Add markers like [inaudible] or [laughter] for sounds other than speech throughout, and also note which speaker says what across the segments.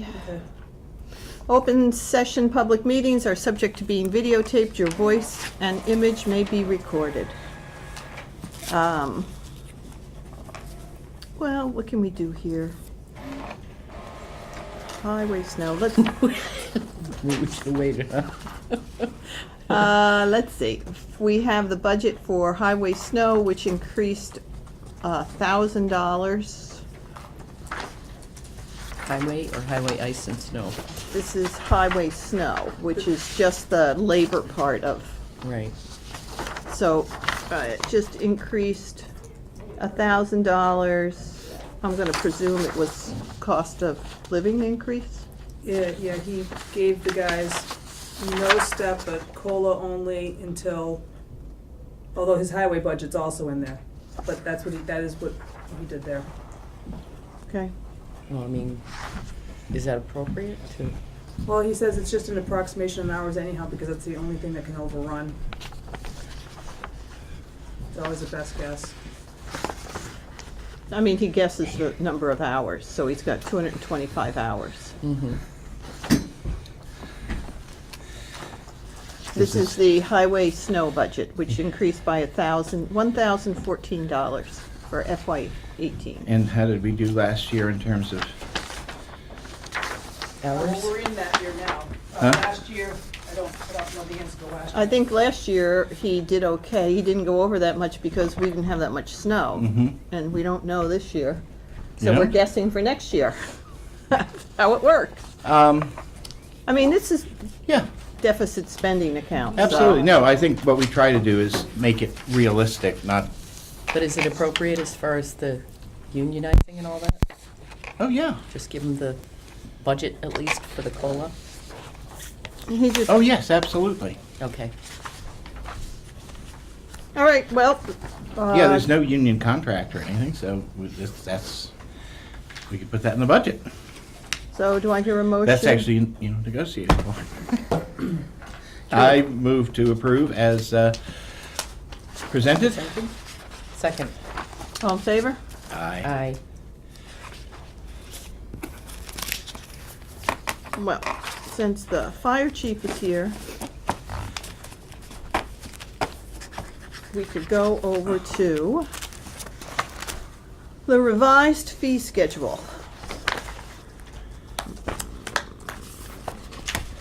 Speaker 1: Okay.
Speaker 2: Open session public meetings are subject to being videotaped. Your voice and image may be recorded. Um, Well, what can we do here? Highway snow, let's,
Speaker 3: Which the waiter,
Speaker 2: uh, let's see. We have the budget for highway snow, which increased a thousand dollars.
Speaker 3: Highway or highway ice and snow?
Speaker 2: This is highway snow, which is just the labor part of
Speaker 3: Right.
Speaker 2: So, uh, it just increased a thousand dollars. I'm gonna presume it was cost of living increase?
Speaker 1: Yeah, yeah, he gave the guys no step but COLA only until, although his highway budget's also in there. But that's what he, that is what he did there.
Speaker 2: Okay,
Speaker 3: Well, I mean, is that appropriate to?
Speaker 1: Well, he says it's just an approximation of hours anyhow, because that's the only thing that can overrun. It's always the best guess.
Speaker 2: I mean, he guesses the number of hours, so he's got two hundred and twenty-five hours.
Speaker 3: Mm-hmm.
Speaker 2: This is the highway snow budget, which increased by a thousand, one thousand fourteen dollars for FY eighteen.
Speaker 4: And how did we do last year in terms of,
Speaker 3: Hours?
Speaker 1: in that year now. Uh,
Speaker 4: Huh?
Speaker 1: year, I don't, I don't know the answer to last
Speaker 2: I think last year he did okay. He didn't go over that much because we didn't have that much snow.
Speaker 4: Mhm.
Speaker 2: And we don't know this year. So we're
Speaker 4: Yeah.
Speaker 2: guessing for next year. [laughs] How it works.
Speaker 4: um,
Speaker 2: I mean, this is
Speaker 4: yeah,
Speaker 2: deficit spending account. so-
Speaker 4: absolutely. No, I think what we try to do is make it realistic, not,
Speaker 3: But is it appropriate as far as the unionizing and all that?
Speaker 4: oh, yeah,
Speaker 3: Just give them the budget at least for the COLA?
Speaker 2: He just,
Speaker 4: oh,
Speaker 2: all
Speaker 4: yes, absolutely.
Speaker 3: Okay.
Speaker 2: right, well.
Speaker 4: Yeah, there's
Speaker 2: uh,
Speaker 4: no union contract or anything, so we- that's- that's, we could put that in the budget.
Speaker 2: So do I hear a motion?
Speaker 4: That's actually, you know, negotiable. I move to approve as uh, presented.
Speaker 3: Second? Second.
Speaker 2: All in favor?
Speaker 4: Aye.
Speaker 3: Aye.
Speaker 2: Well, since the fire chief is here, we could go over to the revised fee schedule.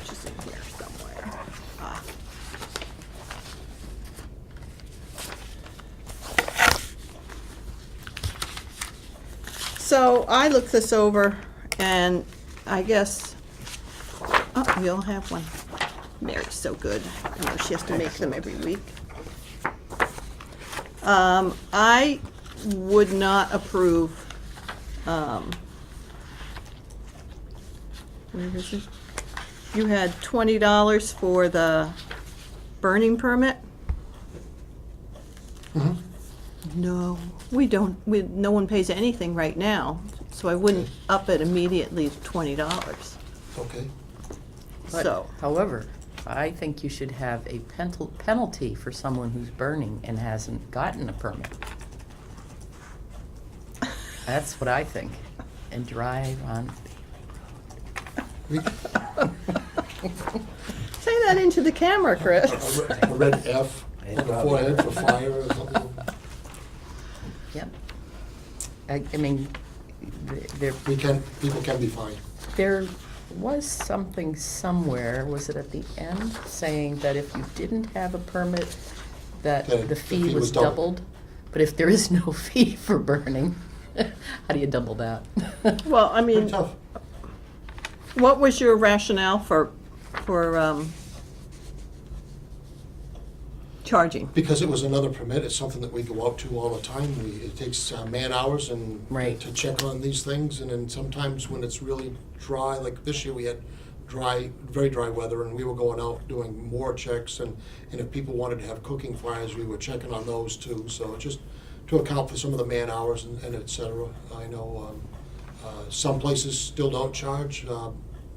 Speaker 2: Which is in here somewhere. Ah. So I looked this over and I guess Oh, we all have one. Mary's so good. You know, she has to make them every week. Um, I would not approve, um, where is it? You had twenty dollars for the burning permit? No, we don't, we, no one pays anything right now, so I wouldn't up it immediately to twenty dollars.
Speaker 5: Okay,
Speaker 3: But,
Speaker 2: So-
Speaker 3: However, I think you should have a penal- penalty for someone who's burning and hasn't gotten a permit. That's what I think. And drive on.
Speaker 2: Say that into the camera, Chris.
Speaker 5: a re- a red F on the forehead for fire or something.
Speaker 3: Yep. I, I mean, th- there,
Speaker 5: We can, people can be fined.
Speaker 3: there was something somewhere, was it at the end, saying that if you didn't have a permit, that
Speaker 5: The-
Speaker 3: the fee was doubled? But if there is no [laughs] fee for burning, [laughs] how do you double that?
Speaker 2: Well, I
Speaker 5: Pretty
Speaker 2: mean,
Speaker 5: tough.
Speaker 2: what was your rationale for, for, um, charging?
Speaker 5: Because it was another permit, it's something that we go out to all the time. We, it takes uh, man hours and
Speaker 3: Right.
Speaker 5: to check on these things, and then sometimes when it's really dry, like this year we had dry, very dry weather, and we were going out doing more checks, and, and if people wanted to have cooking fires, we were checking on those too. So just to account for some of the man hours and, and et cetera. I know um, uh, some places still don't charge. Uh,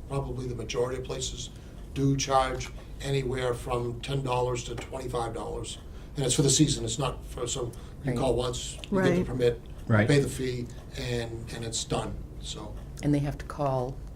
Speaker 5: probably the majority of places do charge anywhere from ten dollars to twenty-five dollars, and it's for the season. It's not for so you
Speaker 3: Right.
Speaker 5: call once, you get the
Speaker 2: Right.
Speaker 5: permit,
Speaker 4: Right.
Speaker 5: pay the fee, and, and it's done, so.
Speaker 3: And they have to call